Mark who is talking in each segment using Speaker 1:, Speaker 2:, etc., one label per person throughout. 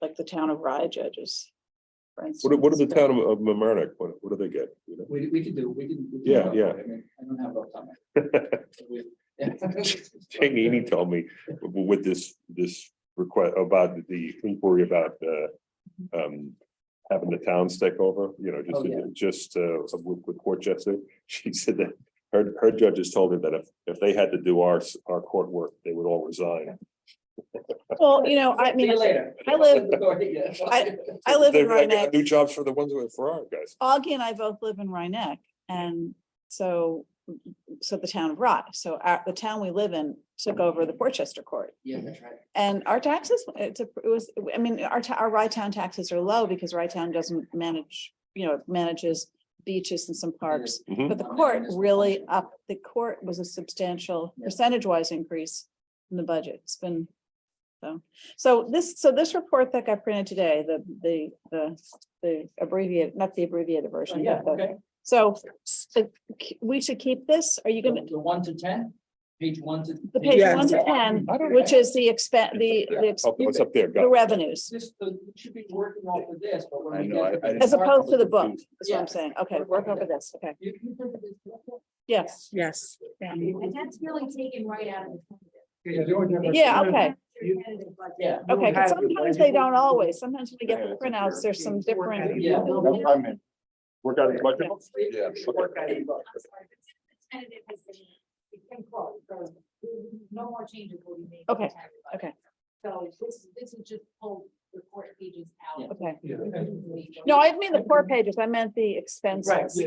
Speaker 1: like the town of Rye judges. for
Speaker 2: What, do- what does the
Speaker 1: instance.
Speaker 2: town of of Mamaroneck, what, what do they get? you know?
Speaker 3: We, we could do, we can. we can
Speaker 2: Yeah,
Speaker 3: talk
Speaker 2: yeah.
Speaker 3: about it. I mean, I don't have a comment. We-
Speaker 2: Jane Eady told me w- with this, this request about the inquiry about, uh, um, having the towns take over, you know,
Speaker 3: Oh, yeah.
Speaker 2: just, just, uh, with, with Court Jester. She said that her, her judges told her that if, if they had to do our, s- our court work, they would all resign.
Speaker 1: Well, you know, I
Speaker 3: See
Speaker 1: mean,
Speaker 3: you later.
Speaker 1: I live-
Speaker 3: Yeah.
Speaker 1: I live in
Speaker 2: They're-
Speaker 1: Rye
Speaker 2: I got New jobs for the ones who are for our guys.
Speaker 1: Augie and I both live in Rhinebeck and so, so the town of Rye, so our, the town we live in took over the Portchester court.
Speaker 3: Yeah, that's right.
Speaker 1: And our taxes, it's a, it was, I mean, our, ta- our Rye Town taxes are low because Rye Town doesn't manage, you know, it manages beaches and some parks.
Speaker 2: Mhm.
Speaker 1: But the court really up, the court was a substantial
Speaker 3: Yeah.
Speaker 1: percentage wise increase in the budget. It's been. So, so this, so this report that got printed today, the, the, the, the abbreviated, not the abbreviated
Speaker 3: So,
Speaker 1: version.
Speaker 3: Yeah,
Speaker 1: but the-
Speaker 3: okay.
Speaker 1: So, so we should keep this? Are you gonna,
Speaker 3: The one to ten, page one to.
Speaker 1: the page
Speaker 4: Yeah.
Speaker 1: one to ten, which is the expend, the, the, ex-
Speaker 2: Oh, What's up there?
Speaker 1: the
Speaker 2: Gus?
Speaker 1: revenues,
Speaker 3: This, the- we should be working off of this, but when
Speaker 2: I
Speaker 3: we
Speaker 2: know,
Speaker 3: get.
Speaker 2: I- I-
Speaker 1: as opposed to the book,
Speaker 2: confused.
Speaker 1: is what
Speaker 3: Yeah.
Speaker 1: I'm saying. Okay, work over this. Okay,
Speaker 3: You- you printed this book?
Speaker 1: yes.
Speaker 4: Yes.
Speaker 5: And that's really taken right out of the.
Speaker 1: Yeah, okay,
Speaker 5: competitive budget.
Speaker 3: Yeah.
Speaker 1: okay. 'cause Sometimes they don't always. Sometimes when we get the printouts, there's some different.
Speaker 3: Yeah.
Speaker 2: No, I'm in. Work out as much. Yeah.
Speaker 5: I'm sorry, but the Tentative has been, it's been closed, so no more changes will be made. to the
Speaker 1: Okay,
Speaker 5: tentative budget.
Speaker 1: okay.
Speaker 5: So this, this is just pull the court pages out.
Speaker 1: Okay. No,
Speaker 5: No,
Speaker 1: I didn't mean the four pages. I meant the expenses.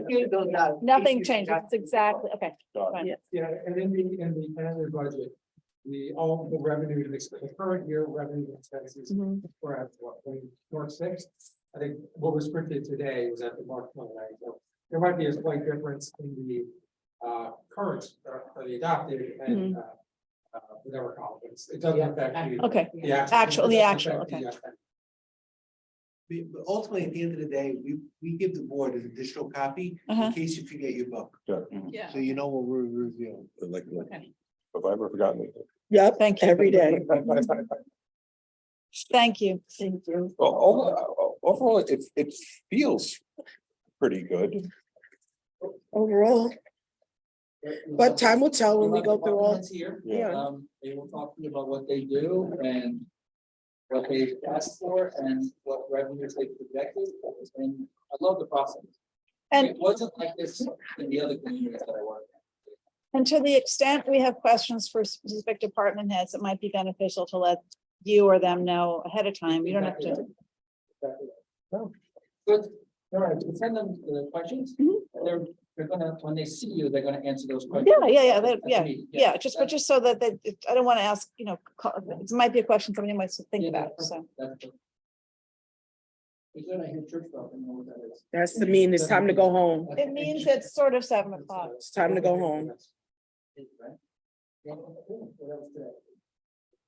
Speaker 1: Nothing changes. It's exactly, okay. fine.
Speaker 6: Yeah, and in the, in the annual budget, the, all the revenue and expense, the current year revenue and expenses
Speaker 1: Mhm.
Speaker 6: were at what, March sixth? I think what was printed today was at the March one, so there might be a slight difference in the, uh, current, or or the adopted
Speaker 1: Mm-hmm.
Speaker 6: and, uh, uh, whatever conference, it doesn't affect the.
Speaker 1: Okay,
Speaker 6: the actual-
Speaker 1: Actual- the
Speaker 6: it doesn't
Speaker 1: actual,
Speaker 6: affect the, uh,
Speaker 7: We- but ultimately, at the end of the day, we, we give the board an additional copy
Speaker 1: Uh-huh.
Speaker 7: in case you forget your book.
Speaker 2: Yeah.
Speaker 1: Yeah.
Speaker 7: So you know what we're reviewing.
Speaker 2: mm-hmm. Like, like,
Speaker 1: Okay.
Speaker 2: Have I ever forgotten? it?
Speaker 4: Yep,
Speaker 1: Thank you.
Speaker 4: every day.
Speaker 1: Thank you. Thank you.
Speaker 2: Well, overall, overall, it, it feels pretty good.
Speaker 4: Overall, but time will tell when we go through all.
Speaker 3: Departments Here.
Speaker 4: Yeah.
Speaker 3: Um, they will talk to you about what they do and what they asked for and what revenues they projected. And I love the process.
Speaker 1: And,
Speaker 3: It wasn't like this in the other communities that I worked.
Speaker 1: and to the extent we have questions for specific department heads, it might be beneficial to let you or them know ahead of time. You don't have to.
Speaker 3: Good, all right, we send them the questions.
Speaker 1: Mhm.
Speaker 3: They're, they're gonna, when they see you, they're gonna answer those questions.
Speaker 1: Yeah, yeah, yeah, that-
Speaker 3: At the
Speaker 1: yeah,
Speaker 3: meeting,
Speaker 1: Yeah, just, but
Speaker 3: that's-
Speaker 1: just so that, that, it- I don't want to ask, you know, co- it might be a question somebody might think
Speaker 3: yeah,
Speaker 1: about,
Speaker 3: that's-
Speaker 1: so.
Speaker 3: that's good. Is that I hear church bell, I don't know what that is.
Speaker 4: That's to mean it's time to go home.
Speaker 1: It means it's sort of seven o'clock.
Speaker 4: It's time to go home.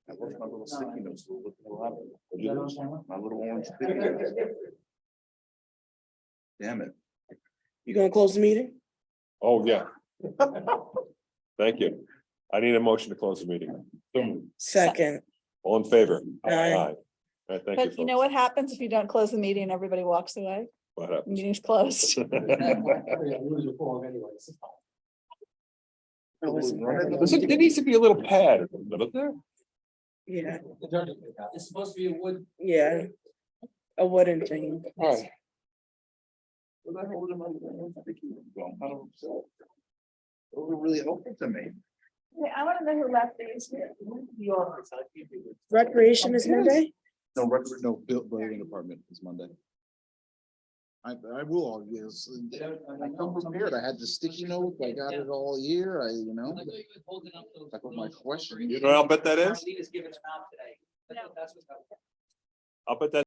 Speaker 2: I love my little sticky notes, the little- the little-
Speaker 3: Is that on camera?
Speaker 2: My little orange sticky notes. Damn it.
Speaker 4: You gonna close the meeting?
Speaker 2: Oh, yeah. Thank you. I need a motion to close the meeting. Boom.
Speaker 4: Second,
Speaker 2: All in favor?
Speaker 4: Aye.
Speaker 2: All right, thank you.
Speaker 1: But you know what happens if you don't close the meeting and everybody walks away?
Speaker 2: folks. What up?
Speaker 1: Meeting's closed.
Speaker 6: Yeah, lose your form anyways.
Speaker 2: There's a- There needs to be a little pad, doesn't there?
Speaker 4: yeah,
Speaker 3: The judge will pick out. It's supposed to be a wood.
Speaker 4: yeah. A wooden thing.
Speaker 2: Hi.
Speaker 8: Was I holding on to that? I was thinking, well, I don't know. Those were really helpful to me.
Speaker 1: I want to know who left these.
Speaker 4: Recreation is Monday?
Speaker 8: No, record, no, bill- building department is Monday. I, I will, all yes. I come prepared. I had the sticky notes. I got it all year. I, you know. That was my question.
Speaker 2: You know what I'll bet that is?
Speaker 3: Marlena's giving them out today. That's what- that's what's happening.
Speaker 2: I'll bet that